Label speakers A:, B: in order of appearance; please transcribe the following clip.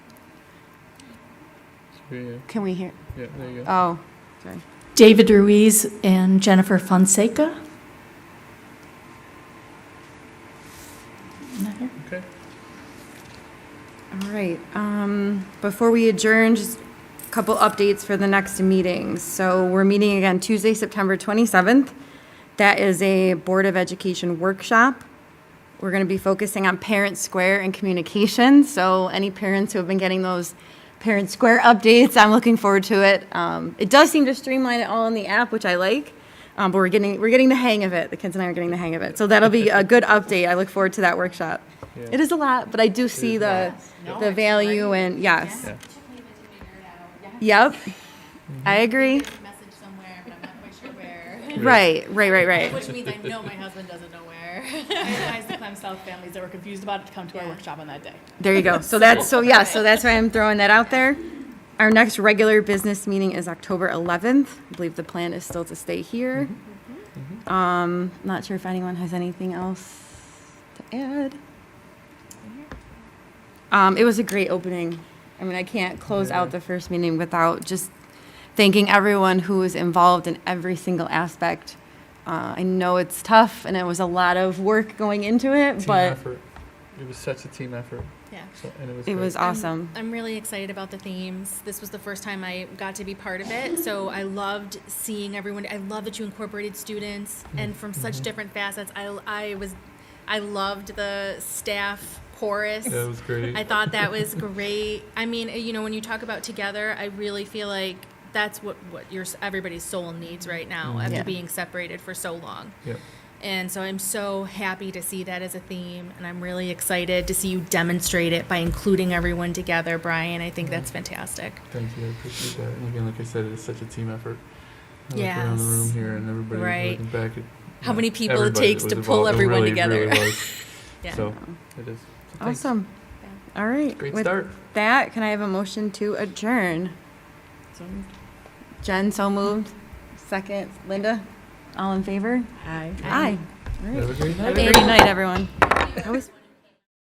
A: Yeah,
B: Can we hear?
A: yeah, there you go.
B: Oh, sorry.
C: David Ruiz and Jennifer Fonseca. Not here.
A: Okay.
D: All right, um, before we adjourn, just a couple updates for the next meeting. So we're meeting again Tuesday, September 27th. That is a Board of Education workshop. We're going to be focusing on Parent Square and communication. So any parents who have been getting those Parent Square updates, I'm looking forward to it. Um, It does seem to streamline it all in the app, which I like, um, but we're getting, we're getting the hang of it. The kids and I are getting the hang of it. So that'll be a good update. I look forward to that workshop.
A: Yeah.
D: It is a lot, but I do see the, the value and, yes.
A: Yeah.
E: took me a bit to figure it out. Yeah,
D: Yep. I agree.
E: I have a message somewhere, but I'm not quite sure where.
D: Right, right, right, right.
E: Which means I know my husband doesn't know where. I advise the Clem South families that were confused about it to come to our workshop on that day.
D: There you go. So that's, so yeah, so that's why I'm throwing that out there. Our next regular business meeting is October 11th. I believe the plan is still to stay here.
A: Mm-hmm.
D: Um, not sure if anyone has anything else to add. Um, it was a great opening. I mean, I can't close out the first meeting without just thanking everyone who was involved in every single aspect. Uh, I know it's tough and it was a lot of work going into it,
A: Team
D: but
A: effort. It was such a team effort.
E: Yeah.
A: So, and it was.
D: it
A: great.
D: was
E: I'm-
D: awesome.
E: I'm, really excited about the themes. This was the first time I got to be part of it, so I loved seeing everyone. I love that you incorporated students and from such different facets. I, I was, I loved the staff chorus.
A: Yeah, it was great.
E: I thought that was great. I mean, you know, when you talk about together, I really feel like that's what what your everybody's soul needs right now after
D: Yeah.
E: being separated for so long.
A: Yep.
E: And so I'm so happy to see that as a theme, and I'm really excited to see you demonstrate it by including everyone together, Brian. I think that's fantastic.
A: Thank you. I appreciate that. And again, like I said, it is such a team effort. I look around the
E: Yes.
A: room here and everybody
E: Right.
A: looking back at.
E: How
A: yeah,
E: many people it
A: everybody
E: takes
A: that
E: to
A: was
E: pull
A: involved. It
E: everyone
A: really,
E: together.
A: really was.
E: Yeah.
A: So it is. So thanks.
D: Awesome. All right.
A: Great
D: With
A: start.
D: that, can I have a motion to adjourn? Jen, so moved. Second, Linda. All in favor? Aye. Aye. All right.
A: Have a great night.
D: Have a great night, everyone. That was-